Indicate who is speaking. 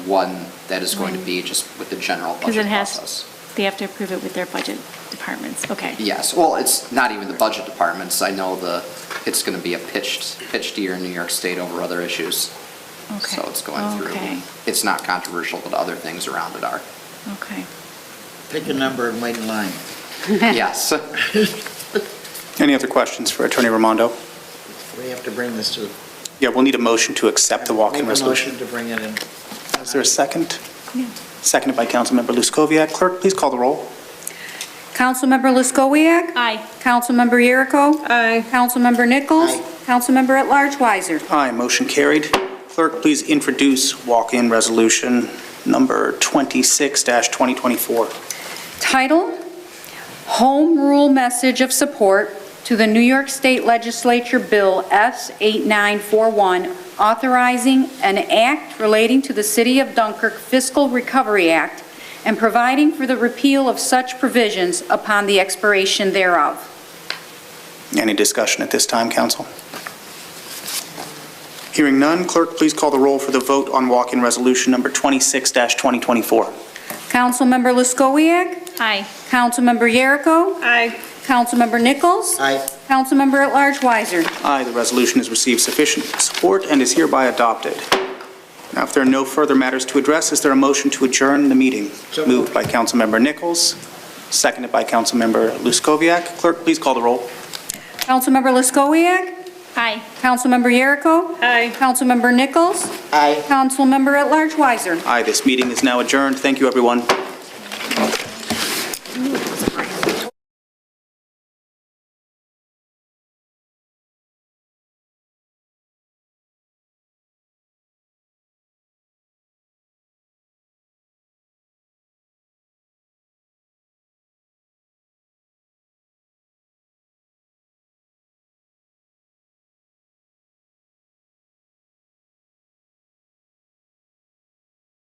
Speaker 1: one that is going to be just with the general
Speaker 2: Because it
Speaker 1: budget
Speaker 2: has,
Speaker 1: process.
Speaker 2: they have to approve it with their budget departments, okay.
Speaker 1: Yes, well, it's not even the budget departments. I know the, it's going to be a pitched, pitched year in New York State over other issues.
Speaker 2: Okay.
Speaker 1: So it's going through.
Speaker 2: Okay,
Speaker 1: It's not controversial, but other things around it are.
Speaker 2: okay.
Speaker 3: Pick a number and wait in line.
Speaker 1: Yes.
Speaker 4: Any other questions for Attorney Ramondo?
Speaker 3: We have to bring this to.
Speaker 4: Yeah, we'll need a motion to accept the walk-in resolution.
Speaker 3: Make a motion to bring it in.
Speaker 4: Is there a second?
Speaker 2: Yeah.
Speaker 4: Seconded by Councilmember Luskoviac. Clerk, please call the roll.
Speaker 5: Councilmember Luskowiak.
Speaker 2: Aye.
Speaker 5: Councilmember Yeruko. Aye. Councilmember Nichols.
Speaker 3: Aye.
Speaker 5: Councilmember at large Weiser.
Speaker 4: Aye, motion carried. Clerk, please introduce walk-in resolution number 26-2024.
Speaker 5: Title: Home Rule Message of Support to the New York State Legislature Bill S-8941, authorizing an act relating to the City of Dunkirk Fiscal Recovery Act and providing for the repeal of such provisions upon the expiration thereof.
Speaker 4: Any discussion at this time, council? Hearing none, clerk, please call the roll for the vote on walk-in resolution number 26-2024.
Speaker 5: Councilmember Luskowiak.
Speaker 2: Aye.
Speaker 5: Councilmember Yeruko.
Speaker 2: Aye.
Speaker 5: Councilmember Nichols.
Speaker 3: Aye.
Speaker 5: Councilmember at large Weiser.
Speaker 4: Aye, the resolution has received sufficient support and is hereby adopted. Now, if there are no further matters to address, is there a motion to adjourn the meeting?
Speaker 3: So moved.
Speaker 4: Moved by Councilmember Nichols, seconded by Councilmember Luskoviac. Clerk, please call the roll.
Speaker 5: Councilmember Luskowiak.
Speaker 2: Aye.
Speaker 5: Councilmember Yeruko.
Speaker 2: Aye.
Speaker 5: Councilmember Nichols.
Speaker 3: Aye.
Speaker 5: Councilmember at large Weiser.
Speaker 4: Aye, this meeting is now adjourned. Thank you, everyone.